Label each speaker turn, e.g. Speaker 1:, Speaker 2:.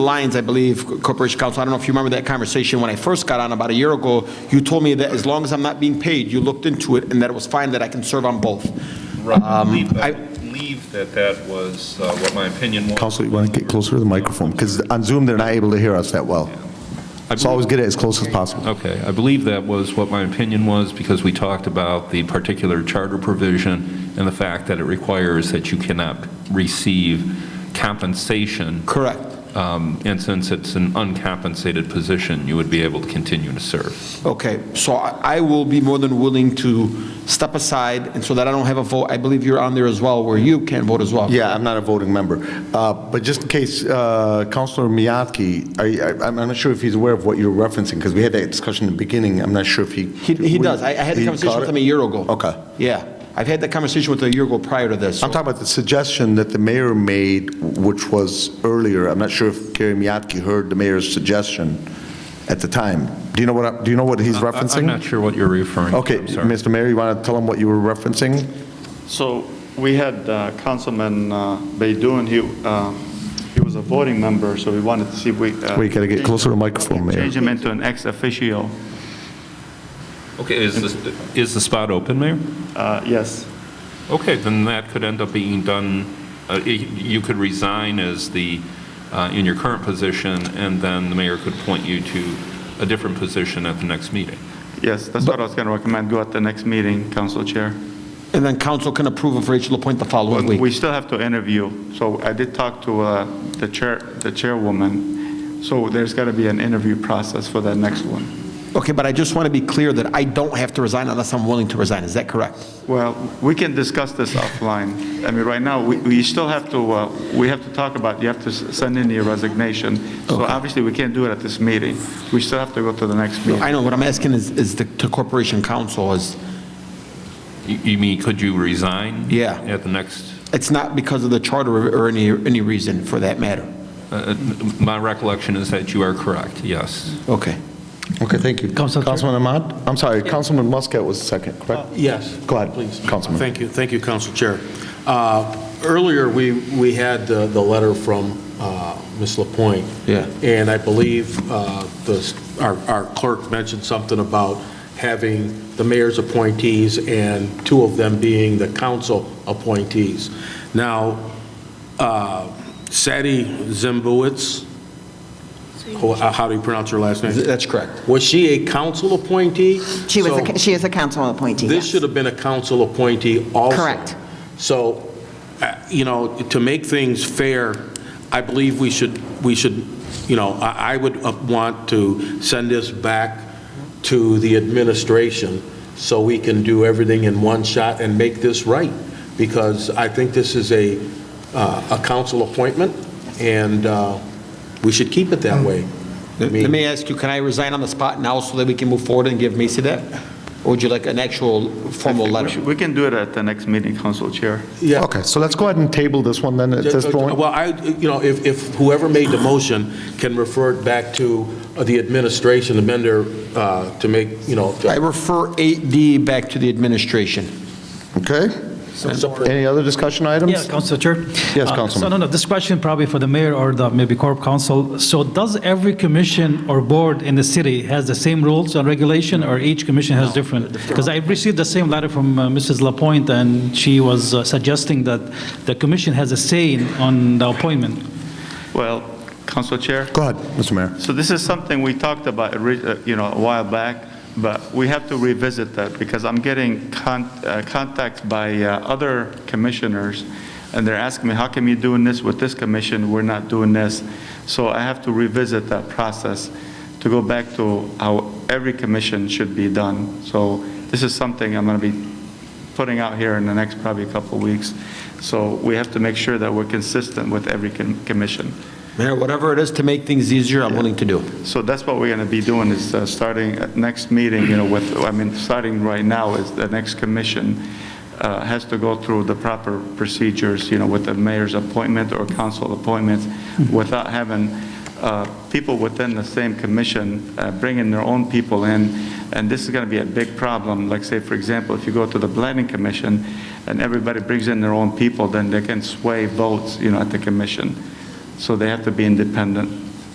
Speaker 1: Lyons, I believe, Corporation Counsel, I don't know if you remember that conversation when I first got on about a year ago, you told me that as long as I'm not being paid, you looked into it and that it was fine that I can serve on both.
Speaker 2: Right, I believe-
Speaker 1: I-
Speaker 2: Um, I believe that that was uh, what my opinion was.
Speaker 3: Counselor, you want to get closer to the microphone? Because on Zoom, they're not able to hear us that well. So always get it as close as possible.
Speaker 2: Okay, I believe that was what my opinion was, because we talked about the particular charter provision and the fact that it requires that you cannot receive compensation,
Speaker 1: Correct.
Speaker 2: um, and since it's an uncompensated position, you would be able to continue to serve.
Speaker 1: Okay, so I I will be more than willing to step aside and so that I don't have a vote. I believe you're on there as well where you can vote as well.
Speaker 3: Yeah, I'm not a voting member. Uh, But just in case, uh, Counselor Miyaki, are you- I- I'm I'm not sure if he's aware of what you're referencing, because we had that discussion in the beginning. I'm not sure if he...
Speaker 1: He, he does. I I had the
Speaker 3: He
Speaker 1: conversation
Speaker 3: caught
Speaker 1: with him
Speaker 3: it?
Speaker 1: a year ago.
Speaker 3: Okay.
Speaker 1: Yeah. I've had that conversation with him a year ago prior to this.
Speaker 3: I'm talking about the suggestion that the mayor made, which was earlier. I'm not sure if Gary Miyaki heard the mayor's suggestion at the time. Do you know what, I- do you know what
Speaker 1: Uh,
Speaker 3: he's
Speaker 2: I- I'm
Speaker 3: referencing?
Speaker 2: not sure what you're referring to.
Speaker 3: Okay,
Speaker 2: I'm sorry.
Speaker 3: Mr. Mayor, you want to tell him what you were referencing?
Speaker 4: So we had uh, Councilman uh, Baidoon, he, um, he was a voting member, so we wanted to see if we. uh,
Speaker 3: Wait, gotta get closer to the microphone, Mayor.
Speaker 4: Change him into an ex officio.
Speaker 2: Okay, is the, is the spot open, Mayor?
Speaker 4: Uh, Yes,
Speaker 2: Okay, then that could end up being done, uh, y- you could resign as the, uh, in your current position, and then the mayor could appoint you to a different position at the next meeting.
Speaker 4: yes, that's what I was going to recommend, go at the next meeting, Council Chair.
Speaker 1: And then council can approve of Rachel LaPointe the following week.
Speaker 4: We still have to interview, so I did talk to uh, the chair, the chairwoman, so there's got to be an interview process for that next one.
Speaker 1: Okay, but I just want to be clear that I don't have to resign unless I'm willing to resign. Is that correct?
Speaker 4: Well, we can discuss this offline. I mean, right now, we, we still have to, uh, we have to talk about, you have to s- send in your resignation. So obviously, we can't do it at this meeting. We still have to go to the next meeting.
Speaker 1: I know, what I'm asking is, is the to corporation council is,
Speaker 2: You- You mean, could you resign?
Speaker 1: Yeah.
Speaker 2: At the next,
Speaker 1: it's not because of the charter or any, any reason for that matter.
Speaker 2: uh, my recollection is that you are correct, yes.
Speaker 1: Okay.
Speaker 3: Okay, thank you.
Speaker 5: Council Chair.
Speaker 3: Councilman Ahmad? I'm sorry, Councilman Muscat was second, correct?
Speaker 5: Yes.
Speaker 3: Go ahead,
Speaker 5: Uh, please.
Speaker 3: Councilman.
Speaker 5: Thank you, thank you, Council Chair. Uh, Earlier, we, we had the, the letter from uh, Ms. Lapointe.
Speaker 1: Yeah.
Speaker 5: And I believe uh, the, our our clerk mentioned something about having the mayor's appointees and two of them being the council appointees. Now, uh, Sadie Zimbowitz, who- how do you pronounce her last name?
Speaker 1: That's correct.
Speaker 5: Was she a council appointee?
Speaker 6: She was,
Speaker 5: So-
Speaker 6: a- she is a council appointee,
Speaker 5: This
Speaker 6: yes.
Speaker 5: should have been a council appointee also.
Speaker 6: Correct.
Speaker 5: So, uh, you know, to make things fair, I believe we should, we should, you know, I I would uh, want to send this back to the administration so we can do everything in one shot and make this right, because I think this is a, uh, a council appointment, and uh, we should keep it that way. I
Speaker 1: Mm. Let
Speaker 5: mean-
Speaker 1: me ask you, can I resign on the spot now so that we can move forward and give Macy that? Or would you like an actual formal
Speaker 4: We
Speaker 1: letter?
Speaker 4: should- We can do it at the next meeting, Council Chair.
Speaker 5: Yeah.
Speaker 3: Okay, so let's go ahead and table this one then at this point.
Speaker 5: uh, Well, I, you know, if, if whoever made the motion can refer it back to the administration, the vendor, uh, to make, you know.
Speaker 1: I refer 8D back to the administration.
Speaker 3: Okay? Any other discussion
Speaker 7: Yeah,
Speaker 3: items?
Speaker 7: Council Chair.
Speaker 3: Yes,
Speaker 7: Uh, So,
Speaker 3: Councilman.
Speaker 7: no, no, this question probably for the mayor or the maybe corp council. So does every commission or board in the city has the same rules and regulation, or each commission has different? Because I received the same letter from uh, Mrs. Lapointe, and she was uh, suggesting that the commission has a say in- on the appointment.
Speaker 4: Well, Council Chair?
Speaker 3: Go ahead, Mr. Mayor.
Speaker 4: So this is something we talked about, ori- uh, you know, a while back, but we have to revisit that because I'm getting con- uh, contacts by uh, other commissioners, and they're asking me, how come you're doing this with this commission, we're not doing this? So I have to revisit that process to go back to how every commission should be done. So this is something I'm going to be putting out here in the next probably couple of weeks. So we have to make sure that we're consistent with every com- commission.
Speaker 1: Mayor, whatever it is to make things easier, I'm willing to do.
Speaker 4: So that's what we're going to be doing, is uh, starting at next meeting, you know, with, I mean, starting right now is the next commission uh, has to go through the proper procedures, you know, with the mayor's appointment or council appointments, without having uh, people within the same commission uh, bringing their own people in. And this is going to be a big problem. Like, say, for example, if you go to the planning commission and everybody brings in their own people, then they can sway votes, you know, at the commission. So they have to be independent.